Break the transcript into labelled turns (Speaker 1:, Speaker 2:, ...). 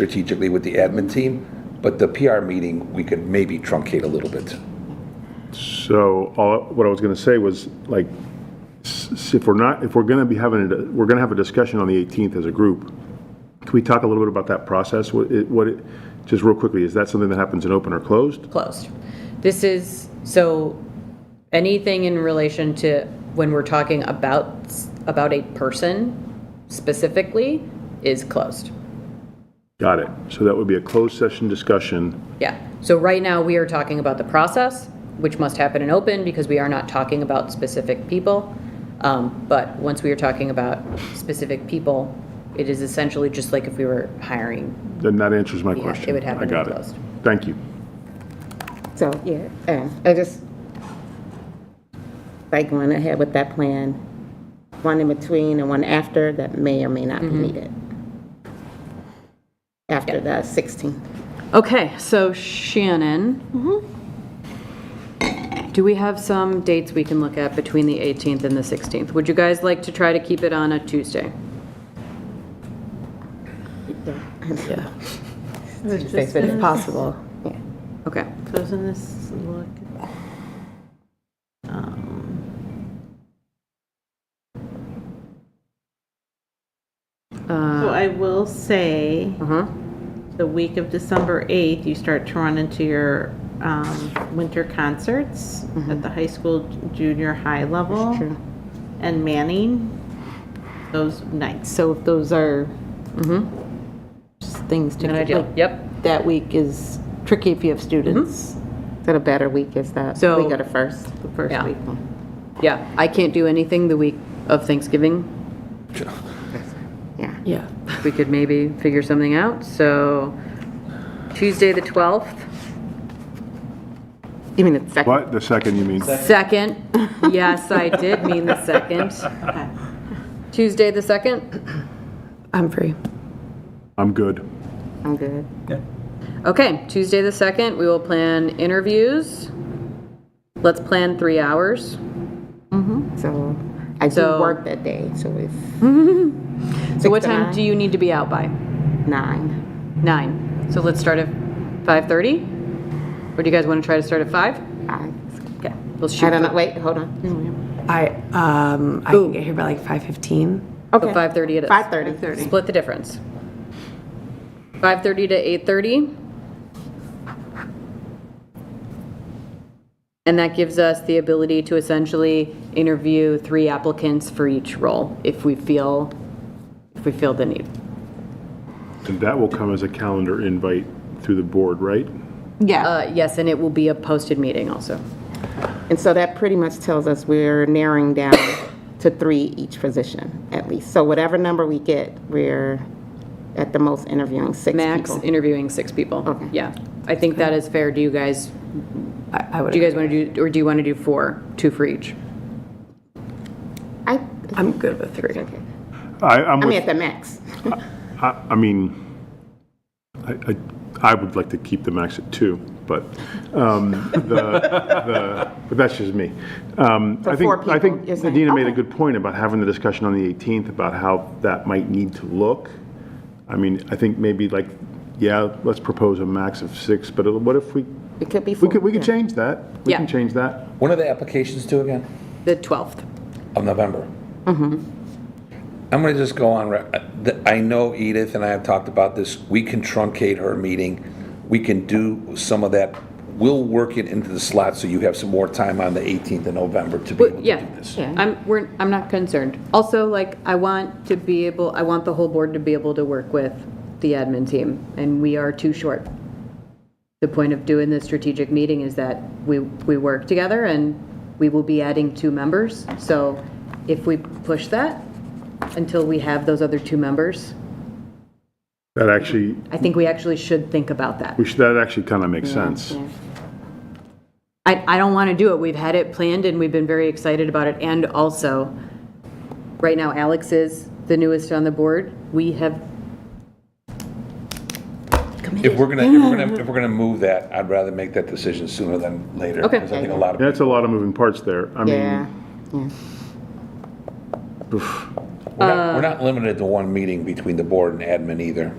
Speaker 1: strategically with the admin team, but the PR meeting, we could maybe truncate a little bit.
Speaker 2: So, all, what I was gonna say was, like, s- s- if we're not, if we're gonna be having, a- we're gonna have a discussion on the 18th as a group, can we talk a little bit about that process? What, it- what, it- just real quickly, is that something that happens in open or closed?
Speaker 3: closed. This is, so anything in relation to when we're talking about, about a person specifically is closed.
Speaker 2: Got it. So that would be a closed session discussion.
Speaker 3: Yeah. So right now, we are talking about the process, which must happen in open because we are not talking about specific people. Um, But once we are talking about specific people, it is essentially just like if we were hiring.
Speaker 2: Then that answers my
Speaker 3: Yeah,
Speaker 2: question.
Speaker 3: it would happen
Speaker 2: I got
Speaker 3: in
Speaker 2: it.
Speaker 3: closed.
Speaker 2: Thank you.
Speaker 4: So, yeah, uh, I just, like, went ahead with that plan, one in between and one after, that may or may not
Speaker 5: Mm-hmm.
Speaker 4: be needed. After the 16th.
Speaker 3: Okay, so Shannon.
Speaker 4: Mm-hmm.
Speaker 3: Do we have some dates we can look at between the 18th and the 16th? Would you guys like to try to keep it on a Tuesday?
Speaker 4: Yeah. If it's possible. Yeah.
Speaker 3: Okay.
Speaker 5: Doesn't this look? um, So I will say,
Speaker 3: Uh-huh.
Speaker 5: the week of December 8th, you start to run into your um, winter concerts at the high school, junior high level. And Manning, those nights. Mm-hmm. So if those are just things to.
Speaker 3: Good idea.
Speaker 5: like,
Speaker 3: Yep.
Speaker 5: That week is tricky if you have students,
Speaker 4: So the better week is that,
Speaker 3: So-
Speaker 4: we go to first.
Speaker 5: the first
Speaker 3: Yeah.
Speaker 5: week.
Speaker 3: Yeah, I can't do anything the week of Thanksgiving.
Speaker 4: Yeah.
Speaker 6: Yeah.
Speaker 3: We could maybe figure something out, so Tuesday, the 12th,
Speaker 4: Even the second,
Speaker 2: What, the second you mean?
Speaker 3: 2nd. Yes, I did mean the 2nd.
Speaker 5: Okay.
Speaker 3: Tuesday, the 2nd?
Speaker 6: I'm free.
Speaker 2: I'm good.
Speaker 4: I'm good.
Speaker 3: Okay, Tuesday, the 2nd, we will plan interviews. Let's plan three hours.
Speaker 4: So, I do
Speaker 3: So-
Speaker 4: work that day, so it's
Speaker 3: So what
Speaker 4: Six to
Speaker 3: time
Speaker 4: nine.
Speaker 3: do you need to be out by?
Speaker 4: nine.
Speaker 3: Nine. So let's start at 5:30? Or do you guys want to try to start at 5?
Speaker 4: I
Speaker 3: Okay, we'll shoot.
Speaker 4: I don't know,
Speaker 3: for-
Speaker 4: wait, hold on.
Speaker 6: I um I can get here by like 5:15.
Speaker 3: So 5:30 it is.
Speaker 4: 5:30.
Speaker 3: Split the difference. 5:30 to 8:30. And that gives us the ability to essentially interview three applicants for each role if we feel, if we feel the need.
Speaker 2: And that will come as a calendar invite through the board, right?
Speaker 3: Uh, Yes, and it will be a posted meeting also.
Speaker 4: And so that pretty much tells us we're narrowing down to three each position, at least. So whatever number we get, we're at the most interviewing six
Speaker 3: Max
Speaker 4: people.
Speaker 3: interviewing six people.
Speaker 4: Okay.
Speaker 3: Yeah. I think that is fair. Do you guys,
Speaker 6: I, I would.
Speaker 3: do you guys want to do, or do you want to do four, two for each?
Speaker 4: I,
Speaker 6: I'm good with three.
Speaker 4: okay.
Speaker 2: I, I'm
Speaker 4: I mean,
Speaker 2: with,
Speaker 4: at the max.
Speaker 2: I, I mean, I, I, I would like to keep the max at two, but, um, the, the, but that's just me. Um, I
Speaker 4: four
Speaker 2: think, I think
Speaker 4: people, you're saying.
Speaker 2: Adina made a
Speaker 4: Okay.
Speaker 2: good point about having the discussion on the 18th about how that might need to look. I mean, I think maybe like, yeah, let's propose a max of six, but what if we,
Speaker 4: It could be
Speaker 2: we
Speaker 4: four.
Speaker 2: could, we could
Speaker 4: yeah.
Speaker 2: change that. We
Speaker 3: Yeah.
Speaker 2: can change that.
Speaker 1: When are the applications due again?
Speaker 3: The 12th.
Speaker 1: Of November?
Speaker 3: Mm-hmm.
Speaker 1: I'm going to just go on, re- th- I know Edith and I have talked about this, we can truncate her meeting, we can do some of that, we'll work it into the slot so you have some more time on the 18th of November to be
Speaker 3: But,
Speaker 1: able to
Speaker 3: yeah,
Speaker 1: do this.
Speaker 3: I'm, we're, I'm not concerned. Also, like, I want to be able, I want the whole board to be able to work with the admin team, and we are too short. The point of doing this strategic meeting is that we, we work together, and we will be adding two members. So if we push that until we have those other two members,
Speaker 2: That actually,
Speaker 3: I think we actually should think about that.
Speaker 2: we should, that actually kind of makes sense.
Speaker 3: I, I don't want to do it. We've had it planned and we've been very excited about it. And also, right now Alex is the newest on the board. We have,
Speaker 1: If we're going to, if we're going to, if we're going to move that, I'd rather make that decision sooner than later.
Speaker 3: Okay.
Speaker 1: Because I think a lot of
Speaker 2: That's a lot of moving parts there. I
Speaker 4: Yeah,
Speaker 2: mean,
Speaker 4: yeah.
Speaker 3: Uh,
Speaker 1: We're not, we're not limited to one meeting between the board and admin either.